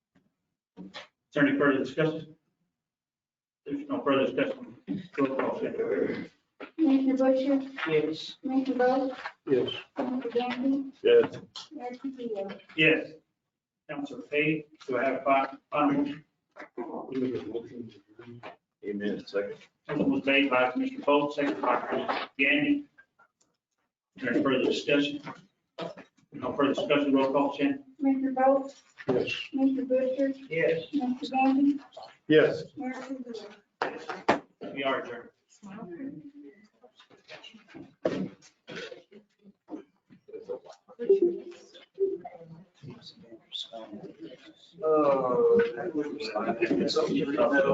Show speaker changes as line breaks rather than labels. there any further discussion? There's no further discussion. Roll call, Sandra.
Commissioner Busher,
Yes.
Commissioner Bowe,
Yes.
Commissioner Gandy,
Yes.
Mayor Trujillo.
Yes. Council paid, do I have five, final?
Amen. Second.
Motion was made by Commissioner Polk, second by Commissioner Gandy. Is there any further discussion? No further discussion, roll call, Shannon.
Commissioner Bowe,
Yes.
Commissioner Busher,
Yes.
Commissioner Gandy,
Yes.
Mayor Trujillo.
We are adjourned.
Oh. that would be-